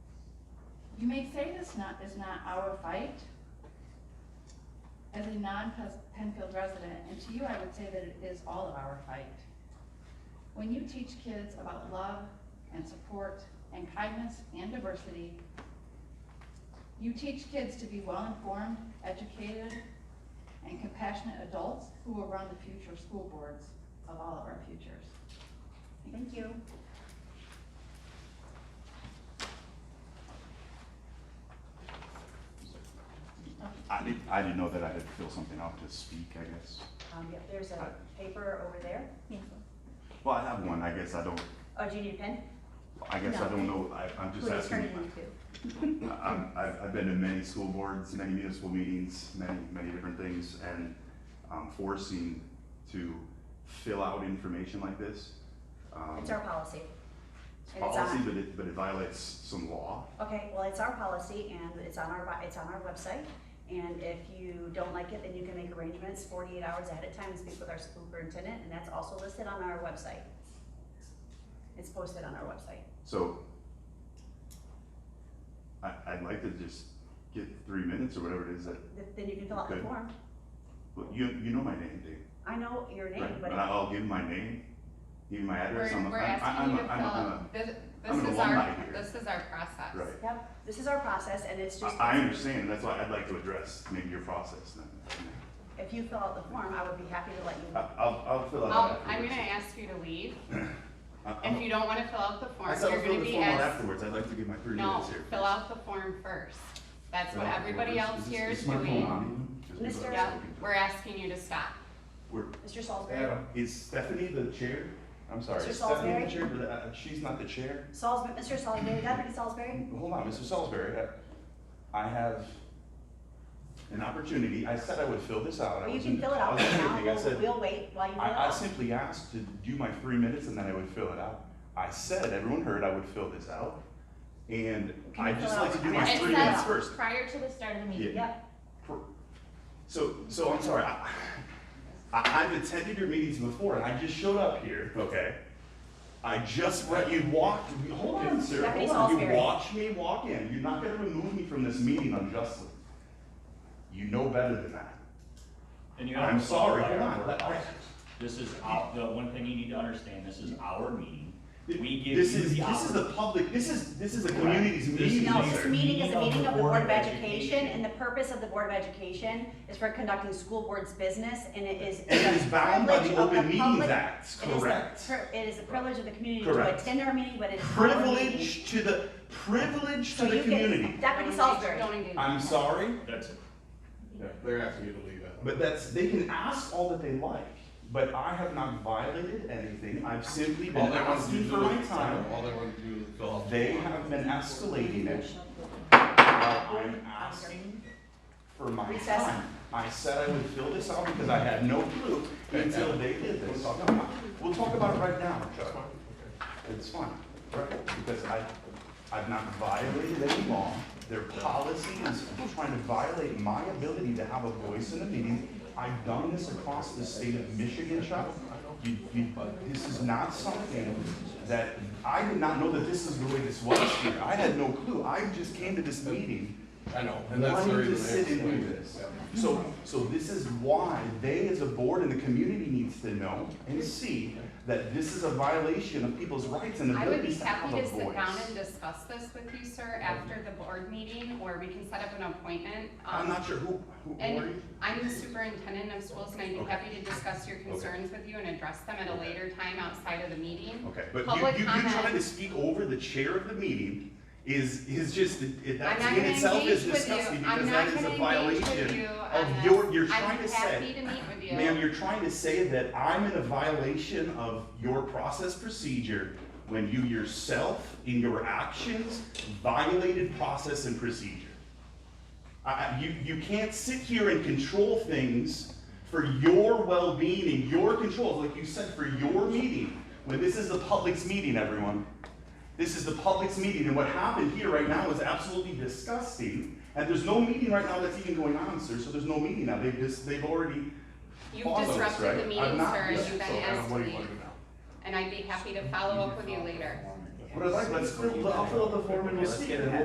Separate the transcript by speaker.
Speaker 1: You may say this not, is not our fight. As a non-Penfield resident, and to you, I would say that it is all of our fight. When you teach kids about love and support and kindness and diversity, you teach kids to be well-informed, educated, and compassionate adults who will run the future school boards of all of our futures. Thank you.
Speaker 2: I didn't, I didn't know that I had to fill something out to speak, I guess.
Speaker 3: Um, yep, there's a paper over there.
Speaker 2: Well, I have one, I guess I don't,
Speaker 3: Oh, do you need a pen?
Speaker 2: I guess I don't know, I, I'm just
Speaker 3: Who you turn
Speaker 2: asking.
Speaker 3: it into?
Speaker 2: I'm, I've, I've been to many school boards, many municipal meetings, many, many different things, and I'm forcing to fill out information like this. um,
Speaker 3: It's our policy.
Speaker 2: it's
Speaker 3: and it's
Speaker 2: Policy,
Speaker 3: on-
Speaker 2: but it, but it violates some law.
Speaker 3: Okay, well, it's our policy and it's on our, bi- it's on our website. And if you don't like it, then you can make arrangements forty-eight hours ahead of time and speak with our superintendent, and that's also listed on our website. It's posted on our website.
Speaker 2: So I, I'd like to just get three minutes or whatever it is that,
Speaker 3: Th- Then you can fill out the
Speaker 2: Okay.
Speaker 3: form.
Speaker 2: well, you, you know my name, Dave.
Speaker 3: I know your name,
Speaker 2: Right,
Speaker 3: but
Speaker 2: but I'll give my name, give my address,
Speaker 4: We're,
Speaker 2: I'm, a-
Speaker 4: we're
Speaker 2: I'm,
Speaker 4: asking
Speaker 2: I'm,
Speaker 4: you
Speaker 2: a-
Speaker 4: to
Speaker 2: I'm, a- I'm
Speaker 4: fill, this,
Speaker 2: I'm an
Speaker 4: this is
Speaker 2: alumni
Speaker 4: our,
Speaker 2: here.
Speaker 4: this is our process.
Speaker 2: Right.
Speaker 3: Yep, this is our process and it's
Speaker 2: a,
Speaker 3: just,
Speaker 2: I, I understand, that's why I'd like to address maybe your process then.
Speaker 3: if you fill out the form, I would be happy to let you
Speaker 2: I,
Speaker 3: know.
Speaker 2: I'll, I'll fill out
Speaker 4: Um,
Speaker 2: afterwards.
Speaker 4: I'm gonna ask you to leave.
Speaker 2: I- I'm-
Speaker 4: If you don't wanna fill out the
Speaker 2: I
Speaker 4: form,
Speaker 2: said I'll
Speaker 4: you're
Speaker 2: fill
Speaker 4: gonna
Speaker 2: the
Speaker 4: be
Speaker 2: form out
Speaker 4: asked,
Speaker 2: afterwards, I'd like to give my three
Speaker 4: no,
Speaker 2: minutes here.
Speaker 4: fill out the form first. That's what
Speaker 2: Fill out the
Speaker 4: everybody
Speaker 2: form.
Speaker 4: else
Speaker 2: Is
Speaker 4: here
Speaker 2: this-
Speaker 4: is
Speaker 2: my phone
Speaker 4: doing.
Speaker 2: on? Just because
Speaker 3: Mr.
Speaker 2: I'm
Speaker 4: Yeah,
Speaker 2: talking to-
Speaker 4: we're asking you to stop.
Speaker 2: We're,
Speaker 3: Mr. Salisbury,
Speaker 2: Adam, is Stephanie the chair? I'm sorry,
Speaker 3: Mr.
Speaker 2: is Stephanie the
Speaker 3: Salisbury?
Speaker 2: chair, but uh, she's not the chair?
Speaker 3: Salisbury, Mr. Salisbury, Deputy Salisbury?
Speaker 2: Hold on, Mr. Salisbury, I- I have an opportunity, I said I would fill this out. I
Speaker 3: Well, you
Speaker 2: was
Speaker 3: can
Speaker 2: in-
Speaker 3: fill it
Speaker 2: I
Speaker 3: out
Speaker 2: was in a
Speaker 3: right
Speaker 2: meeting. I
Speaker 3: now,
Speaker 2: said-
Speaker 3: we'll, we'll wait while you fill it
Speaker 2: I, I
Speaker 3: out.
Speaker 2: simply asked to do my three minutes and then I would fill it out. I said, everyone heard I would fill this out, and
Speaker 3: Can you
Speaker 2: I'd just
Speaker 3: fill it
Speaker 2: like to
Speaker 3: out?
Speaker 2: do
Speaker 3: I
Speaker 2: my
Speaker 3: mean,
Speaker 4: It
Speaker 2: three
Speaker 3: said-
Speaker 2: minutes
Speaker 4: says
Speaker 2: first.
Speaker 4: prior to the start of the meeting.
Speaker 2: Yeah.
Speaker 3: Yep,
Speaker 2: So, so I'm sorry, I, I- I've attended your meetings before, and I just showed up here, okay? I just read, you walked, me- hold on, sir,
Speaker 3: Deputy
Speaker 2: hold on, you
Speaker 3: Salisbury.
Speaker 2: watched me walk in, you're not gonna remove me from this meeting unjustly. You know better than that.
Speaker 5: And you
Speaker 2: I'm
Speaker 5: have to
Speaker 2: sorry,
Speaker 5: follow
Speaker 2: come
Speaker 5: our
Speaker 2: on,
Speaker 5: work
Speaker 2: let-
Speaker 5: hours. This is our, the one thing you need to understand, this is our meeting. We give
Speaker 2: This
Speaker 5: you
Speaker 2: is, this
Speaker 5: the
Speaker 2: is
Speaker 5: opportunity.
Speaker 2: the public, this is, this is the community's meeting,
Speaker 3: no,
Speaker 2: sir.
Speaker 3: this meeting is a meeting of the Board of Education, and the purpose of the Board of Education is for conducting school board's business, and it is.
Speaker 2: It is bound by the
Speaker 3: privilege of
Speaker 2: Open Meetings
Speaker 3: public-
Speaker 2: Act,
Speaker 3: it is the
Speaker 2: correct?
Speaker 3: pri- It is a privilege of the community to
Speaker 2: Correct.
Speaker 3: attend our meeting, but it is. our meeting.
Speaker 2: Privilege to the, privilege to
Speaker 3: So
Speaker 2: the
Speaker 3: you can-
Speaker 2: community.
Speaker 3: Deputy Salisbury,
Speaker 4: Don't engage.
Speaker 2: I'm sorry?
Speaker 5: That's it.
Speaker 6: They're asking you to leave out.
Speaker 2: But that's, they can ask all that they like, but I have not violated anything, I've simply
Speaker 6: All
Speaker 2: been
Speaker 6: they want to
Speaker 2: asking
Speaker 6: do
Speaker 2: for my
Speaker 6: is,
Speaker 2: time.
Speaker 6: all they want to do is fill out. the
Speaker 2: They
Speaker 6: form.
Speaker 2: have been escalating it, while I'm asking for my
Speaker 3: Recess.
Speaker 2: time. I said I would fill this out because I had no clue until they did this. No, We'll talk about it right now, Chuck. It's fine, right? Because I, I've not violated any law. Their policy is trying to violate my ability to have a voice in the meeting. I've done this across the state of Michigan, Chuck. You, you, this is not something that, I did not know that this is the way this was here. I had no clue. I just came to this meeting
Speaker 6: I know, and that's the
Speaker 2: wanting
Speaker 6: reason.
Speaker 2: to
Speaker 6: they
Speaker 2: sit and
Speaker 6: explained
Speaker 2: do
Speaker 6: it.
Speaker 2: this.
Speaker 6: Yeah.
Speaker 2: So, so this is why they as a board and the community needs to know and see that this is a violation of people's rights and
Speaker 4: I would be
Speaker 2: abilities to have
Speaker 4: happy
Speaker 2: a
Speaker 4: to sit down and
Speaker 2: voice.
Speaker 4: discuss this with you, sir, after the board meeting, or we can set up an appointment.
Speaker 2: I'm
Speaker 4: Um,
Speaker 2: not sure who, who who are
Speaker 4: And
Speaker 2: you?
Speaker 4: I'm the superintendent of schools, and I'd be
Speaker 2: Okay.
Speaker 4: happy to discuss your concerns with you and address them at a
Speaker 2: Okay.
Speaker 4: later time outside of the meeting.
Speaker 2: Okay, but you,
Speaker 4: Public
Speaker 2: you, you trying to
Speaker 4: comment.
Speaker 2: speak over the chair of the meeting is, is just, it-
Speaker 4: I'm
Speaker 2: that's
Speaker 4: not
Speaker 2: in
Speaker 4: gonna
Speaker 2: itself is
Speaker 4: engage with you,
Speaker 2: disgusting
Speaker 4: I'm
Speaker 2: because
Speaker 4: not
Speaker 2: that is
Speaker 4: gonna
Speaker 2: a
Speaker 4: engage with
Speaker 2: violation
Speaker 4: you
Speaker 2: of
Speaker 4: on
Speaker 2: your, you're
Speaker 4: this.
Speaker 2: trying
Speaker 4: I'm
Speaker 2: to
Speaker 4: happy
Speaker 2: say.
Speaker 4: to meet with you.
Speaker 2: Ma'am, you're trying to say that I'm in a violation of your process procedure when you yourself, in your actions, violated process and procedure. I- I- you, you can't sit here and control things for your well-being and your controls, like you said, for your meeting, when this is the public's meeting, everyone. This is the public's meeting, and what happened here right now is absolutely disgusting. And there's no meeting right now that's even going on, sir, so there's no meeting now, they've just, they've already
Speaker 4: You've
Speaker 2: All of us, right?
Speaker 4: disrupted the
Speaker 2: I'm
Speaker 4: meeting,
Speaker 2: not-
Speaker 4: sir, and
Speaker 2: yeah,
Speaker 4: you've been
Speaker 6: So Adam,
Speaker 4: asked to
Speaker 6: what do you want
Speaker 4: leave,
Speaker 6: to do now?
Speaker 4: and I'd be happy to follow up with you later.
Speaker 2: What I'd like, let's, fill- I'll fill out the form and we'll see, and then we'll